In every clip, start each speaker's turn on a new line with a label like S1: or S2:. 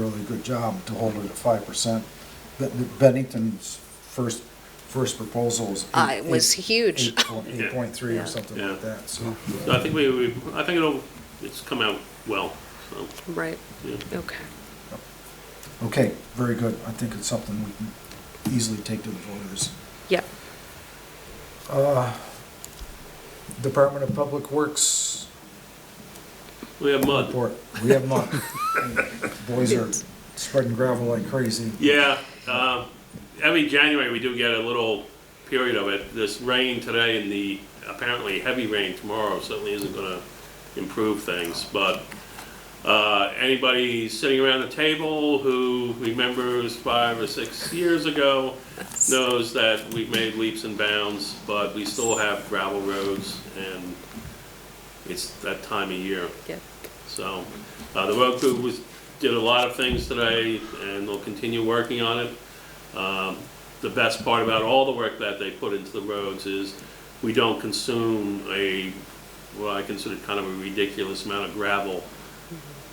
S1: good job to hold it at five percent. Bennington's first, first proposal was. eight-
S2: Uh, it was
S1: eight-
S2: huge.
S1: eight point-
S3: Yeah.
S1: Eight point three
S2: Yeah.
S1: or something
S3: Yeah.
S1: like that, so.
S3: So I think we, we, I think it'll, it's come out well, so,
S2: Right,
S3: yeah.
S2: okay.
S1: Okay, very good. I think it's something we can easily take to the voters.
S2: Yep,
S1: Uh, Department of Public Works
S3: We have mud.
S1: report. We have none. Boys are spreading gravel like crazy.
S3: Yeah, uh, every January we do get a little period of it. This rain today and the apparently heavy rain tomorrow certainly isn't gonna improve things, but, uh, anybody sitting around the table who remembers five or six years ago knows that we've made leaps and bounds, but we still have gravel roads and it's that time of year.
S2: yep.
S3: So, uh, the road crew was, did a lot of things today, and they'll continue working on it. Um, the best part about all the work that they put into the roads is we don't consume a, what I consider kind of a ridiculous amount of gravel,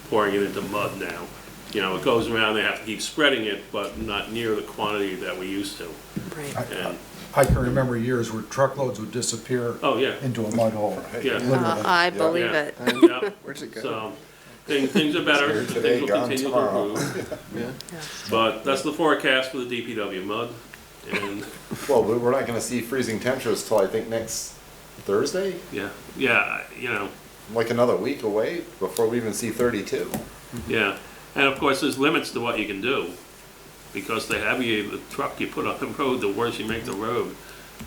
S3: pouring it into mud now. You know, it goes around, they have to keep spreading it, but not near the quantity that we used to.
S2: Right.
S1: I
S3: And,
S1: I can remember years where truckloads would disappear
S3: oh, yeah,
S1: into a mud hole.
S3: yeah,
S2: Uh, I believe
S3: Yeah.
S2: it.
S3: yeah.
S4: Where's it go?
S3: So, things, things are better,
S4: Here today,
S3: things will
S4: gone
S3: continue to
S4: tomorrow.
S3: improve.
S4: Yeah.
S3: But that's the forecast for the DPW mud. And
S4: Well, we- we're not gonna see freezing temperatures till I think next Thursday,
S3: yeah, yeah, you know,
S4: like another week away before we even see thirty-two.
S3: yeah. And of course, there's limits to what you can do because the heavier the truck you put on the road, the worse you make the road.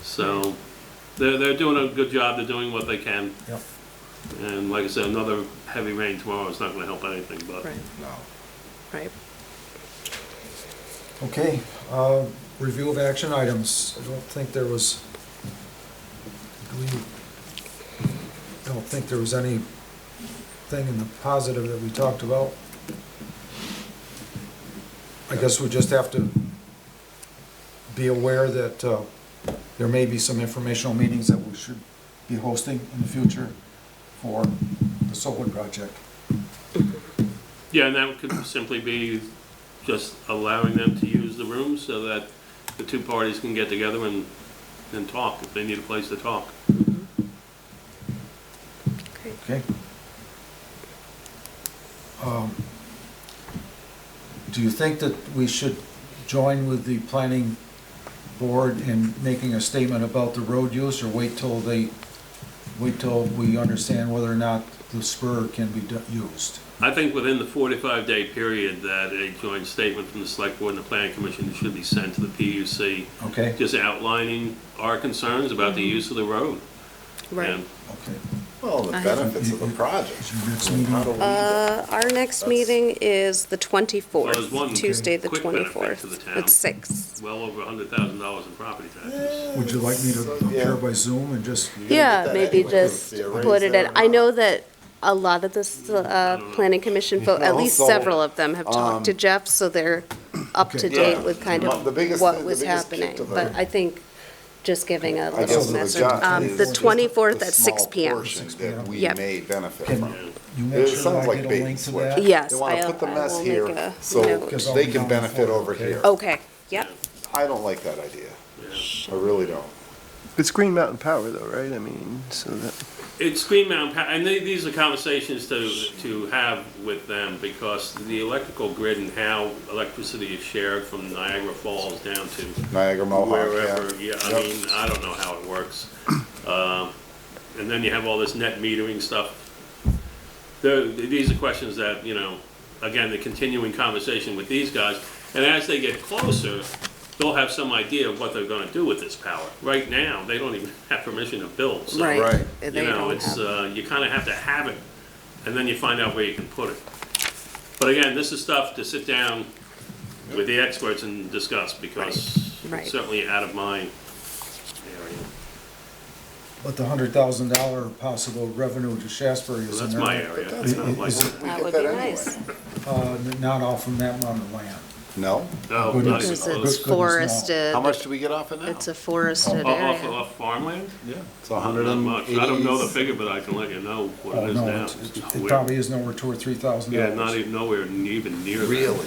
S3: So they're, they're doing a good job. They're doing what they can.
S1: Yep.
S3: And like I said, another heavy rain tomorrow is not going to help anything, but
S2: Right,
S4: No.
S2: right.
S1: Okay, uh, review of action items. I don't think there was, do we, I don't think there was anything in the positive that we talked about. I guess we just have to be aware that uh, there may be some informational meetings that we should be hosting in the future for the solar project.
S3: yeah, and that could simply be just allowing them to use the room so that the two parties can get together and, and talk if they need a place to talk.
S2: Great.
S1: Okay. Um, Do you think that we should join with the planning board in making a statement about the road use, or wait till they, wait till we understand whether or not the spur can be do- used?
S3: I think within the 45-day period that a joint statement from the Select Board and the Planning Commission should be sent to the PUC,
S1: Okay,
S3: just outlining our concerns about the use of the road.
S2: Right.
S3: And
S1: okay.
S4: Well, the
S2: I-
S4: benefits of the
S1: Mm-hmm.
S4: project.
S1: Is your next
S4: I mean, how do
S1: meeting,
S4: we-
S2: Uh, our next
S4: That's-
S2: meeting is the
S3: Well, there's one
S2: twenty-fourth, Tuesday, the
S3: quick benefit to the
S2: twenty-fourth,
S3: town.
S2: at six.
S3: Well over $100,000 in property taxes.
S1: would you like me to
S4: So,
S1: appear
S4: yeah.
S1: by Zoom and just,
S4: You're gonna get
S2: Yeah,
S4: that
S2: maybe
S4: anyway.
S2: just
S4: The arrays
S2: put it
S4: there
S2: in,
S4: are
S2: I
S4: not-
S2: know that a lot of this, uh, planning commission folk, at least
S4: Also, um,
S2: several of them have talked to Jeff, so they're up to
S1: Okay.
S2: date
S4: Yeah.
S2: with kind
S4: Well, the
S2: of
S4: biggest
S2: what
S4: thing- the
S2: was
S4: biggest kick
S2: happening.
S4: to the-
S2: But I think just giving a
S4: I guess
S2: little
S4: the
S2: message.
S4: job
S2: Um,
S4: is
S2: the
S4: just
S2: twenty-fourth
S4: the
S2: at six
S4: small
S2: P M.
S4: portion That we
S2: Yep.
S4: may benefit
S1: Can-
S4: from.
S1: you
S4: It
S1: make sure
S4: sounds
S1: I
S4: like
S1: get a
S4: bait and
S1: link to
S4: switch.
S1: that?
S2: Yes,
S4: They wanna
S2: I'll-
S4: put the
S2: I
S4: mess
S2: will make
S4: here
S2: a
S4: so
S2: note. Oh.
S1: Because I'll
S4: they
S1: be
S4: can
S1: gone
S4: benefit
S1: for-
S4: over
S1: okay.
S4: here.
S2: Okay, yep.
S4: I don't like that idea.
S3: Yeah.
S4: I really don't.
S5: It's Green Mountain Power though, right? I mean, so that.
S3: It's Green Mountain, Pa- and they- these are conversations to, to have with them because the electrical grid and how electricity is shared from Niagara Falls down to
S4: Niagara Mohawk,
S3: wherever, yeah,
S4: yeah.
S3: I
S4: Yep.
S3: mean, I don't know how it works. Um, And then you have all this net metering stuff. There- These are questions that, you know, again, the continuing conversation with these guys, and as they get closer, they'll have some idea of what they're gonna do with this power. Right now, they don't even have permission to build, so.
S2: Right.
S4: Right.
S2: They
S3: You know,
S2: don't
S3: it's,
S2: have-
S3: uh, you kinda have to have it, and then you find out where you can put it. But again, this is stuff to sit down with the experts and discuss, because
S2: Right, right.
S3: it's certainly out of my area.
S1: But the hundred thousand dollar possible revenue to Shasbury is
S3: So
S1: in
S3: that's
S1: there.
S3: my area,
S4: That's
S3: it's not like,
S1: Is-
S4: We
S2: That
S4: get
S2: would
S4: that
S2: be
S4: anyway.
S2: nice.
S1: Uh, n- not off from that amount of land.
S4: No?
S3: no,
S1: Good
S3: not even
S2: Because
S1: goodness,
S2: it's
S3: close.
S1: no.
S2: forested,
S4: How much do we get off of now?
S2: Uh, it's a forested
S3: Off, off,
S2: area.
S3: off farmland?
S4: Yeah. It's
S3: Not much. I don't know the
S4: 180s.
S3: figure, but I can let you know what
S1: Oh,
S3: it is
S1: no,
S3: now.
S1: it's-
S3: It's
S1: It
S3: weird.
S1: probably is nowhere two or three thousand
S3: Yeah,
S1: dollars.
S3: not even nowhere, even near that.
S4: Really?